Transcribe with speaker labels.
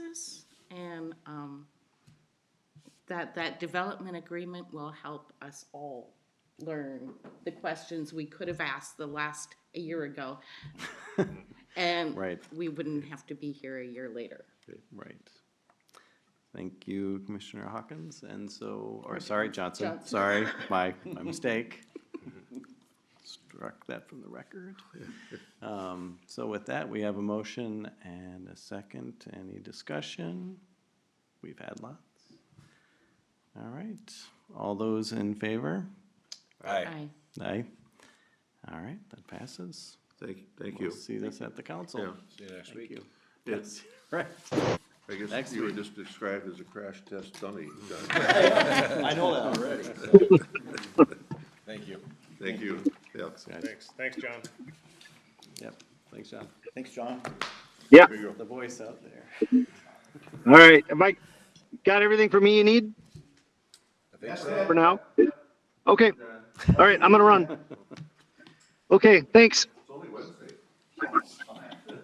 Speaker 1: um, that, that development agreement will help us all learn the questions we could have asked the last, a year ago. And
Speaker 2: Right.
Speaker 1: we wouldn't have to be here a year later.
Speaker 2: Right. Thank you, Commissioner Hawkins, and so, or sorry, Johnson,
Speaker 1: Johnson.
Speaker 2: sorry, my, my mistake. Struck that from the record. Um, So with that, we have a motion and a second. Any discussion? We've had lots. All right, all those in favor?
Speaker 1: Aye.
Speaker 2: Aye. All right, that passes.
Speaker 3: Thank, thank
Speaker 2: We'll
Speaker 3: you.
Speaker 2: see this at the
Speaker 3: Yeah,
Speaker 2: council.
Speaker 4: See you next
Speaker 2: Thank
Speaker 4: week.
Speaker 2: you.
Speaker 3: Yes.
Speaker 2: Right.
Speaker 3: I
Speaker 2: Next
Speaker 3: guess you were just described as a crash test dummy.
Speaker 2: I know that already.
Speaker 4: Thank you.
Speaker 3: Thank you. Yeah.
Speaker 5: Thanks, thanks, John.
Speaker 2: Yep, thanks, John.
Speaker 4: Thanks, John.
Speaker 6: Yeah.
Speaker 3: There you go.
Speaker 2: The voice out there.
Speaker 6: All right. Have I got everything for me you need for now? Okay. All right. I'm going to run. Okay. Thanks.